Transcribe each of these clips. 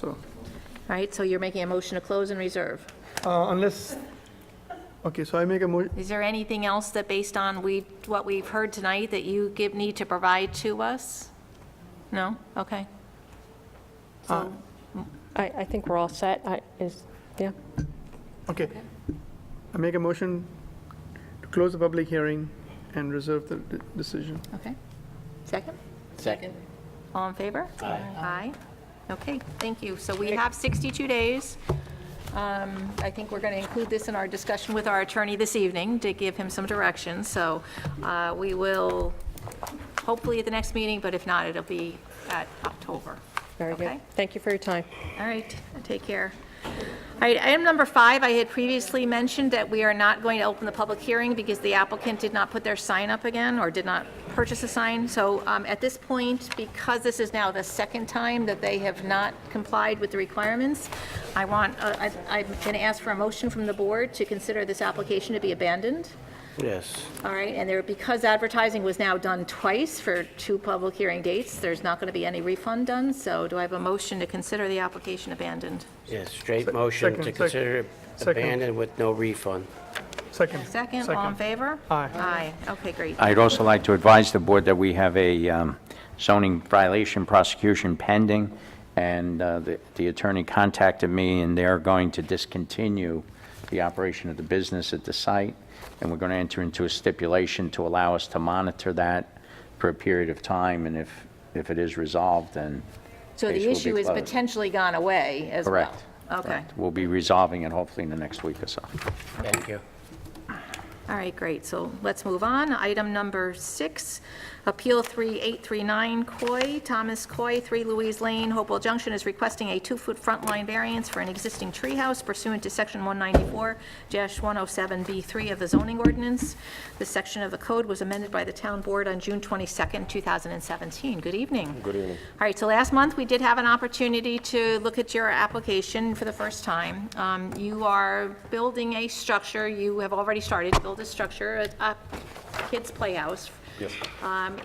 So, All right, so you're making a motion to close and reserve. uh, unless, okay, so I make a mo, Is there anything else that, based on we, what we've heard tonight, that you give, need to provide to us? No? Okay. I, I think we're all set. I, is, yeah. okay. I make a motion to close the public hearing and reserve the the decision. Okay. Second? Second. All in favor? Aye. Aye? Okay, thank you. So we have 62 days. Um, I think we're going to include this in our discussion with our attorney this evening to give him some direction. So uh, we will, hopefully at the next meeting, but if not, it'll be at October. Very good. Okay? Thank you for your time. All right, take care. All right, item number five, I had previously mentioned that we are not going to open the public hearing because the applicant did not put their sign up again or did not purchase a sign. So um, at this point, because this is now the second time that they have not complied with the requirements, I want, uh, I- I'm going to ask for a motion from the board to consider this application to be abandoned. Yes. All right, and there, because advertising was now done twice for two public hearing dates, there's not going to be any refund done, so do I have a motion to consider the application abandoned? Yes, straight motion second, to sec- consider it second. abandoned with no refund. Second. Second, all in favor? Aye. Aye, okay, great. I'd also like to advise the board that we have a um, zoning violation prosecution pending, and uh, the the attorney contacted me, and they're going to discontinue the operation of the business at the site, and we're going to enter into a stipulation to allow us to monitor that for a period of time, and if, if it is resolved, then So case the will be issue is closed. potentially gone away as well? Correct. Okay, we'll be resolving it hopefully in the next week or so. Thank you. all right, great, so let's move on. Item number six, Appeal 3839 Coy, Thomas Coy, 3 Louise Lane, Hopewell Junction is requesting a two-foot front line variance for an existing treehouse pursuant to Section 194-107B3 of the zoning ordinance. This section of the code was amended by the town board on June 22nd, 2017. Good evening. Good evening. All right, so last month, we did have an opportunity to look at your application for the first time. Um, You are building a structure, you have already started to build a structure, a a kid's playhouse. Yes.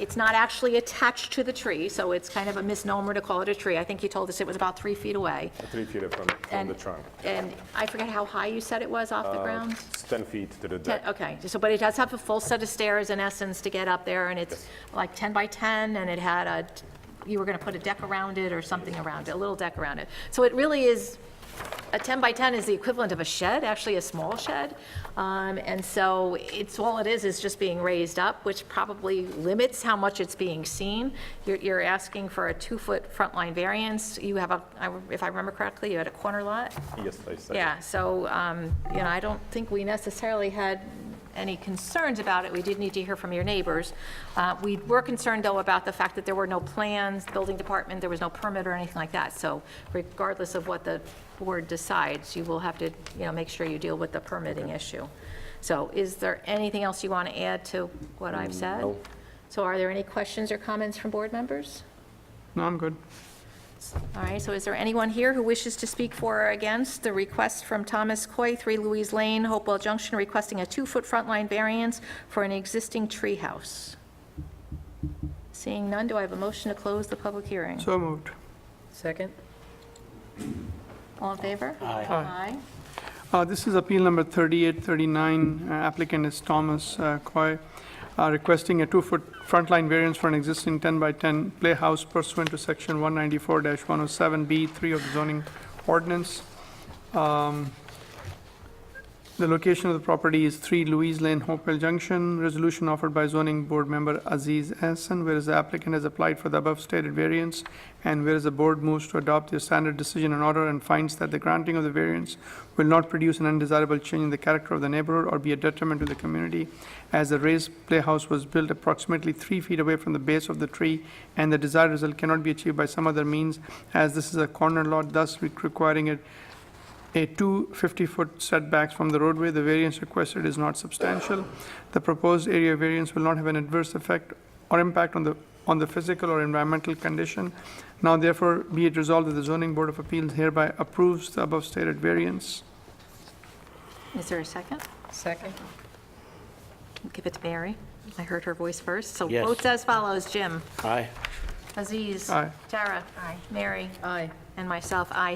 It's not actually attached to the tree, so it's kind of a misnomer to call it a tree. I think you told us it was about three feet away. Three feet from, from And the trunk. And I forget how high you said it was off the ground? It's 10 feet to the Ten- deck. Okay, so, but it does have a full set of stairs in essence to get up there, and it's like 10 by 10, and it had a, you were going to put a deck around it or something around it, a little deck around it. So it really is, a 10 by 10 is the equivalent of a shed, actually a small shed. Um, And so it's, all it is, is just being raised up, which probably limits how much it's being seen. You're, you're asking for a two-foot front line variance. You have a, I- if I remember correctly, you had a corner lot? Yes, I said. Yeah, so, um, you know, I don't think we necessarily had any concerns about it. We did need to hear from your neighbors. Uh, We were concerned, though, about the fact that there were no plans, building department, there was no permit or anything like that. So regardless of what the board decides, you will have to, you know, make sure you deal with the permitting issue. So is there anything else you want to add to what I've said? No. So are there any questions or comments from board members? No, I'm good. All right, so is there anyone here who wishes to speak for or against the request from Thomas Coy, 3 Louise Lane, Hopewell Junction, requesting a two-foot front line variance for an existing treehouse? Seeing none, do I have a motion to close the public hearing? So moved. Second? All in favor? Aye. Uh, This is appeal number 3839. Uh, Applicant is Thomas uh, Coy, uh, requesting a two-foot front line variance for an existing 10 by 10 playhouse pursuant to section 194-107B3 of the zoning ordinance. Um, The location of the property is 3 Louise Lane, Hopewell Junction. Resolution offered by zoning board member Aziz Hassan, whereas the applicant has applied for the above stated variance, and whereas the board moves to adopt the standard decision and order and finds that the granting of the variance will not produce an undesirable change in the character of the neighborhood or be a detriment to the community, as the raised playhouse was built approximately three feet away from the base of the tree, and the desired result cannot be achieved by some other means, as this is a corner lot, thus requiring it a two 50-foot setbacks from the roadway, the variance requested is not substantial. The proposed area variance will not have an adverse effect or impact on the, on the physical or environmental condition. Now therefore, be it resolved that the zoning board of appeals hereby approves the above stated variance. Is there a second? Second. Give it to Mary. I heard her voice first. So Yes. votes as follows, Jim, Aye. Aziz. Aye. Tara. Mary. Aye. And myself, aye.